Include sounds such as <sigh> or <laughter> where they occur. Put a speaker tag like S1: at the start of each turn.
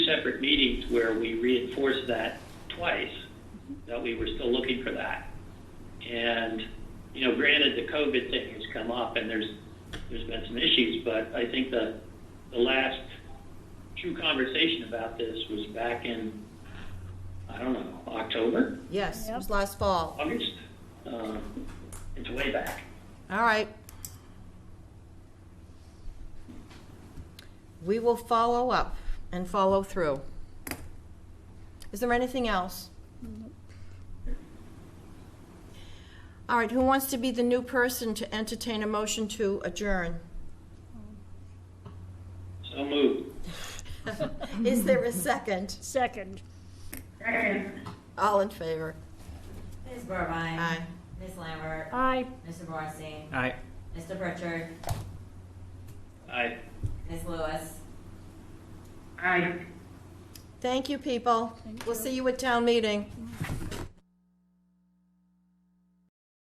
S1: separate meetings where we reinforced that twice, that we were still looking for that. And, you know, granted, the COVID thing has come up and there's, there's been some issues, but I think the, the last true conversation about this was back in, I don't know, October,
S2: Yes, it was
S3: Yep.
S2: last fall.
S1: August? Uh, It's way back.
S2: All right. We will follow up and follow through. Is there anything else? All right, who wants to be the new person to entertain a motion to adjourn? <laughs>
S1: So moved.
S2: Is there a second?
S3: Second.
S2: All in favor?
S4: Ms. Burbine.
S2: Aye.
S4: Ms. Lambert.
S3: Aye.
S4: Mr. Borstein.
S5: Aye.
S4: Mr. Pritchard.
S1: I,
S4: Ms. Lewis.
S2: Thank you, people. We'll see you at town meeting.